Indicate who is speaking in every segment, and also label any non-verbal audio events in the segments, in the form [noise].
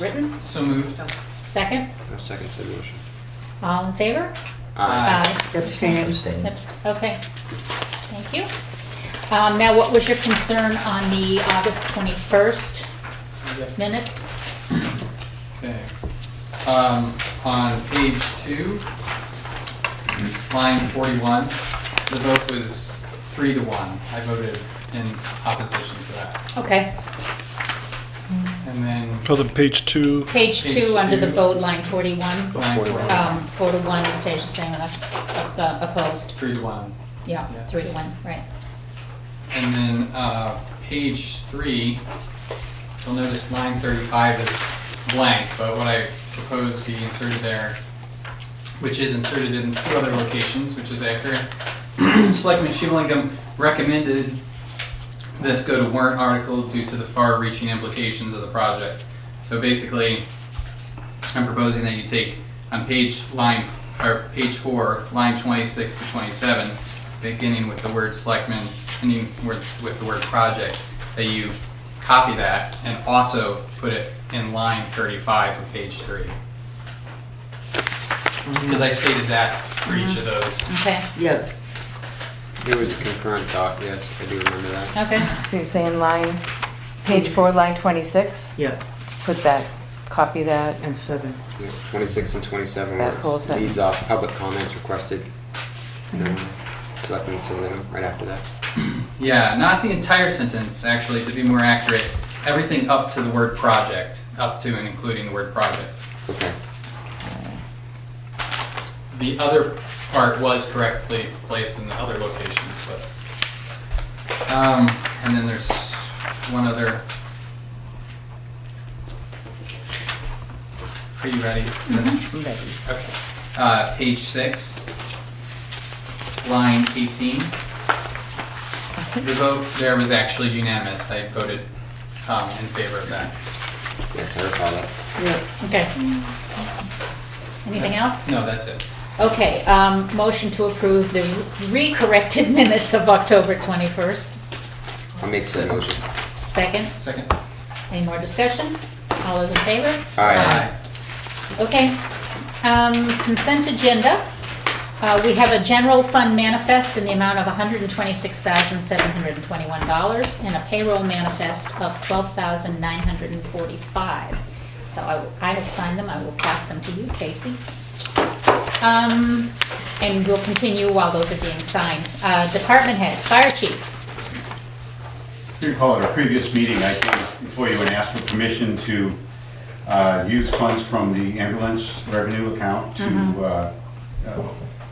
Speaker 1: Written?
Speaker 2: So moved.
Speaker 1: Second?
Speaker 3: I'll second said motion.
Speaker 1: All in favor?
Speaker 2: Aye.
Speaker 4: Abstain.
Speaker 5: Abstain.
Speaker 1: Abs- Okay. Thank you. Um, Now, what was your concern on the August 21st
Speaker 2: Yep,
Speaker 1: minutes?
Speaker 2: Okay. Um, on page two, line forty-one, the vote was three to one. I voted in opposition to that.
Speaker 1: Okay,
Speaker 2: And then
Speaker 6: Go to page two,
Speaker 1: page
Speaker 2: Page
Speaker 1: two, under the
Speaker 2: two.
Speaker 1: vote, line 41,
Speaker 6: Oh,
Speaker 2: line
Speaker 6: 41.
Speaker 1: um, four to one, Tasia saying uh, opposed.
Speaker 2: Three to one.
Speaker 1: Yeah,
Speaker 2: Yeah.
Speaker 1: three to one, right.
Speaker 2: And then, uh, page three, you'll notice line thirty-five is blank, but what I propose be inserted there, which is inserted in two other locations, which is accurate. Selectman Shivlingam recommended this go to warrant article due to the far-reaching implications of the project. So basically, I'm proposing that you take on page line, or page four, line twenty-six to twenty-seven, beginning with the word selectmen, ending with, with the word project, that you copy that and also put it in line thirty-five of page three. Because I stated that for each of those.
Speaker 1: Okay,
Speaker 4: Yeah,
Speaker 3: It was a concurrent thought, yes, I do remember that.
Speaker 1: okay.
Speaker 7: So you're saying line, page four, line twenty-six?
Speaker 4: yeah,
Speaker 7: Put that, copy that.
Speaker 4: and seven.
Speaker 3: Yeah, Twenty-six and twenty-seven
Speaker 7: That whole
Speaker 3: were leads
Speaker 7: sentence.
Speaker 3: off public comments requested. And then
Speaker 7: Mm-hmm.
Speaker 3: Selectmen Salino right after that.
Speaker 2: Yeah, not the entire sentence, actually, to be more accurate, everything up to the word project, up to and including the word project.
Speaker 3: Okay,
Speaker 2: The other part was correctly placed in the other locations, but. Um, and then there's one other. Are you ready?
Speaker 1: Mm-hmm.
Speaker 2: Okay. Uh, page six, line eighteen. The vote there was actually unanimous. I voted, um, in favor of that.
Speaker 3: yes, I recall that.
Speaker 4: Yeah,
Speaker 1: Okay. Anything else?
Speaker 2: No, that's it.
Speaker 1: Okay, um, motion to approve the re-corrected [laughs] minutes of October 21st.
Speaker 3: I'll make said motion.
Speaker 1: Second?
Speaker 2: Second.
Speaker 1: Any more discussion? All those in favor?
Speaker 3: Aye.
Speaker 1: Okay. Um, Consent agenda. Uh, We have a general fund manifest in the amount of $126,721 and a payroll manifest of $12,945. So I will- I have signed them. I will pass them to you, Casey. Um, And we'll continue while those are being signed. Uh, Department heads, fire chief.
Speaker 8: If you recall, at a previous meeting, I came before you and asked for permission to uh, use funds from the ambulance revenue account to uh, uh,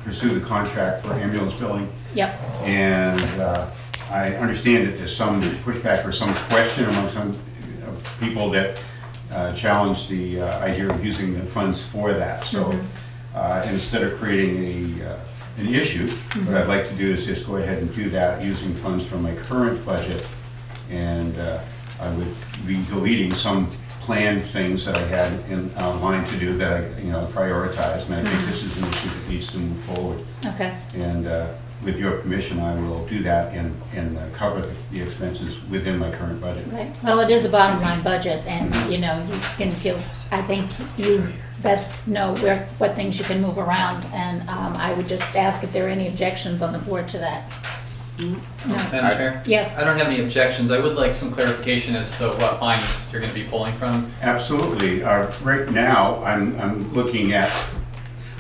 Speaker 8: pursue the contract for ambulance billing.
Speaker 1: Yep.
Speaker 8: And uh, I understand that there's some pushback or some question among some uh, people that uh, challenge the uh, idea of using the funds for that. So uh, instead of creating a, uh, an issue, what I'd like to do is just go ahead and do that using funds from my current budget. And uh, I would be deleting some planned things that I had in uh, mind to do that I, you know, prioritized. And I think this is an issue that needs to move forward.
Speaker 1: Okay.
Speaker 8: And uh, with your permission, I will do that and, and uh, cover the- the expenses within my current budget.
Speaker 1: Right, well, it is a bottom line budget, and, you know, you can feel, I think you best know where, what things you can move around, and um, I would just ask if there are any objections on the board to that.
Speaker 2: Mm-hmm.
Speaker 1: No,
Speaker 2: Madam Chair?
Speaker 1: yes,
Speaker 2: I don't have any objections. I would like some clarification as to what lines you're gonna be pulling from.
Speaker 8: Absolutely. Uh, Right now, I'm, I'm looking at,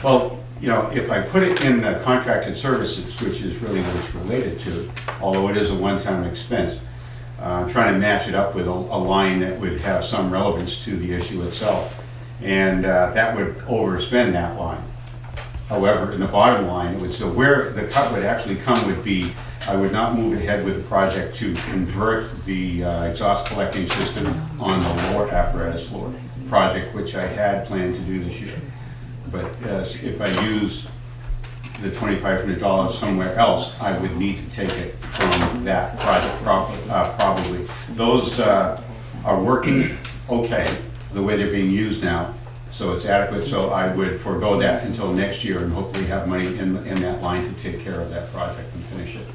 Speaker 8: well, you know, if I put it in uh, contracted services, which is really what it's related to, although it is a one-time expense, uh, I'm trying to match it up with a, a line that would have some relevance to the issue itself. And uh, that would overspend that line. However, in the bottom line, it would, so where the cut would actually come would be, I would not move ahead with the project to convert the uh, exhaust collecting system on the lower apparatus floor project, which I had planned to do this year. But uh, if I use the twenty-five hundred dollars somewhere else, I would need to take it from that project prob- uh, probably. Those uh, are working okay, the way they're being used now, so it's adequate, so I would forego that until next year and hopefully have money in, in that line to take care of that project and finish it.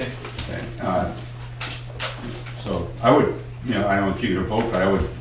Speaker 2: Okay.
Speaker 8: And, uh, So I would, you know, I don't know if you're gonna vote, but I would